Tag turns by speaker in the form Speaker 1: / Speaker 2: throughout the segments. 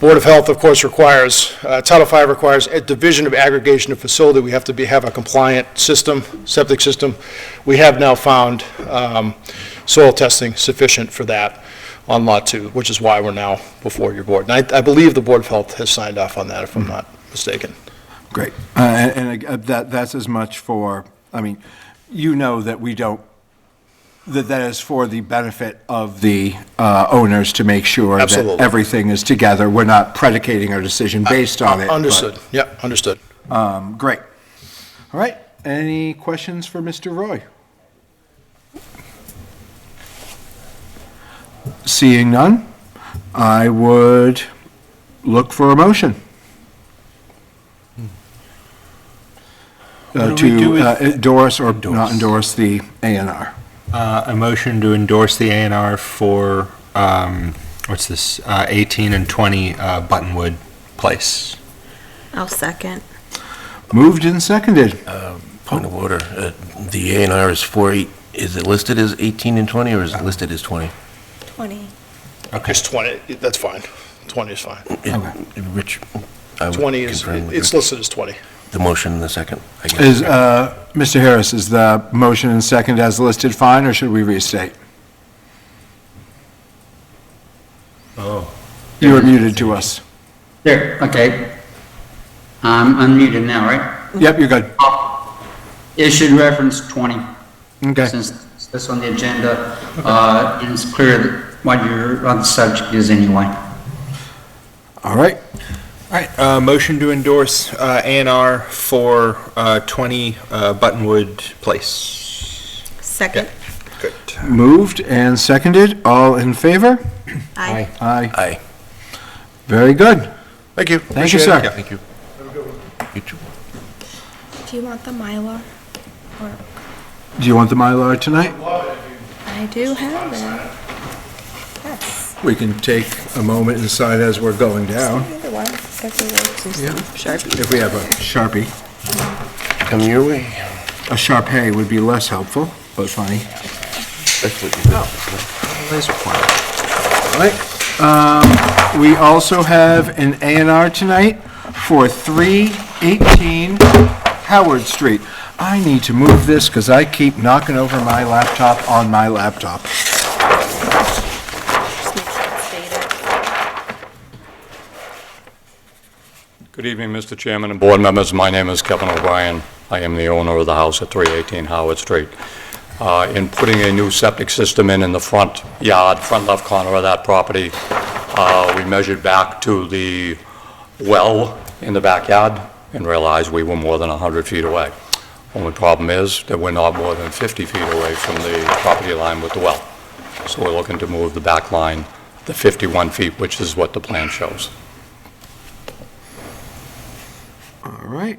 Speaker 1: Board of Health, of course, requires, uh, Title V requires a division of aggregation of facility. We have to be, have a compliant system, septic system. We have now found um, soil testing sufficient for that on Lot 2, which is why we're now before your board. And I I believe the Board of Health has signed off on that, if I'm not mistaken.
Speaker 2: Great. Uh, And and, uh, that, that's as much for, I mean, you know that we don't, that that is for the benefit of the uh, owners to make sure that
Speaker 1: Absolutely. Uh,
Speaker 2: everything is together. We're not predicating our decision based on it. but-
Speaker 1: Understood, yeah, understood.
Speaker 2: Um, Great. All right. Any questions for Mr. Roy? Seeing none, I would look for a motion. Uh,
Speaker 3: What do we do
Speaker 2: To
Speaker 3: with-
Speaker 2: uh, endorse or not endorse the A and R.
Speaker 3: Uh, A motion to endorse the A and R for, um, what's this, uh, 18 and 20 uh, Buttonwood Place.
Speaker 4: I'll second.
Speaker 2: Moved and seconded.
Speaker 5: Point of order, uh, the A and R is four, eight- is it listed as 18 and 20, or is it listed as 20?
Speaker 4: 20.
Speaker 1: It's 20, that's fine, 20 is fine.
Speaker 5: It- Rich, I would
Speaker 1: 20 is,
Speaker 5: confirm with
Speaker 1: it's
Speaker 5: Rich.
Speaker 1: listed as 20.
Speaker 5: The motion in the second. I guess.
Speaker 2: Is, uh, Mr. Harris, is the motion and second as listed fine, or should we restate?
Speaker 3: Oh.
Speaker 2: You were muted to us.
Speaker 6: There, okay. I'm unmuted now, right?
Speaker 2: Yep, you're good.
Speaker 6: It should reference 20,
Speaker 2: Okay.
Speaker 6: since that's on the agenda, uh, and it's clear what your, what the subject is anyway.
Speaker 2: All right.
Speaker 3: All right, uh, motion to endorse uh, A and R for uh, 20 uh, Buttonwood Place.
Speaker 4: Second.
Speaker 3: Good.
Speaker 2: Moved and seconded. All in favor?
Speaker 4: Aye.
Speaker 2: Aye.
Speaker 5: Aye.
Speaker 2: Very good.
Speaker 5: Thank you.
Speaker 2: Thank you,
Speaker 5: Appreciate it.
Speaker 2: sir.
Speaker 5: Yeah, Thank you. You too.
Speaker 4: Do you want the Mylar? Or,
Speaker 2: Do you want the Mylar tonight?
Speaker 4: I do have it. Yes.
Speaker 2: We can take a moment and sign as we're going down,
Speaker 4: Either one. Sharpie.
Speaker 2: if we have a Sharpie.
Speaker 5: Come your way.
Speaker 2: A Sharpay would be less helpful, but funny.
Speaker 5: That's what you do.
Speaker 2: All right. Um, We also have an A and R tonight for 318 Howard Street. I need to move this because I keep knocking over my laptop on my laptop.
Speaker 4: Just make sure it's dated.
Speaker 7: Good evening, Mr. Chairman and board members. My name is Kevin O'Brien. I am the owner of the house at 318 Howard Street. Uh, In putting a new septic system in in the front yard, front left corner of that property, uh, we measured back to the well in the backyard and realized we were more than 100 feet away. Only problem is that we're not more than 50 feet away from the property line with the well. So we're looking to move the back line to 51 feet, which is what the plan shows.
Speaker 2: All right.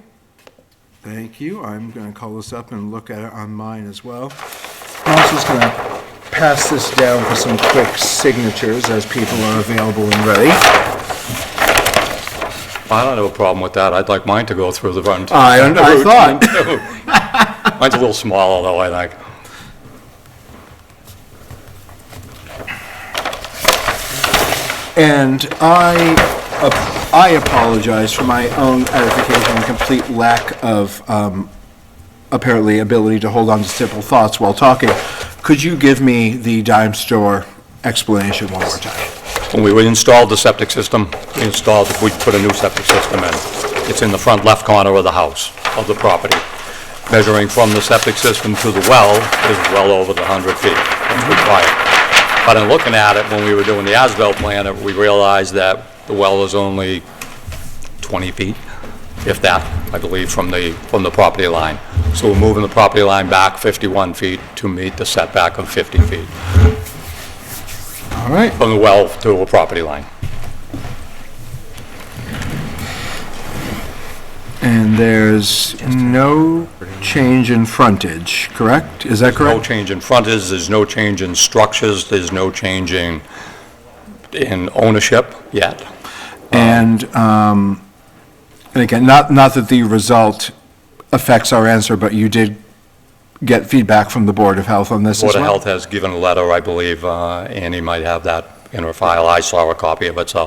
Speaker 2: Thank you. I'm going to call this up and look at it on mine as well. I'm also just going to pass this down for some quick signatures as people are available and ready.
Speaker 7: I don't have a problem with that. I'd like mine to go through the front.
Speaker 2: I- I
Speaker 7: the root.
Speaker 2: thought.
Speaker 7: Mine's a little smaller, though, I think.
Speaker 2: And I, ap- I apologize for my own edification and complete lack of, um, apparently, ability to hold on to simple thoughts while talking. Could you give me the dime store explanation one more time?
Speaker 7: When we installed the septic system, we installed, we put a new septic system in. It's in the front left corner of the house, of the property. Measuring from the septic system to the well is well over the 100 feet that's required. But in looking at it, when we were doing the as-built plan, we realized that the well is only 20 feet, if that, I believe, from the, from the property line. So we're moving the property line back 51 feet to meet the setback of 50 feet
Speaker 2: All right.
Speaker 7: from the well to a property line.
Speaker 2: And there's no change in frontage, correct? Is that
Speaker 7: No
Speaker 2: correct?
Speaker 7: change in frontage, there's no change in structures, there's no change in, in ownership yet. uh,
Speaker 2: And, um, and again, not, not that the result affects our answer, but you did get feedback from the Board of Health on this as
Speaker 7: Board
Speaker 2: well?
Speaker 7: of Health has given a letter, I believe, uh, Annie might have that in her file, I saw a copy of it, so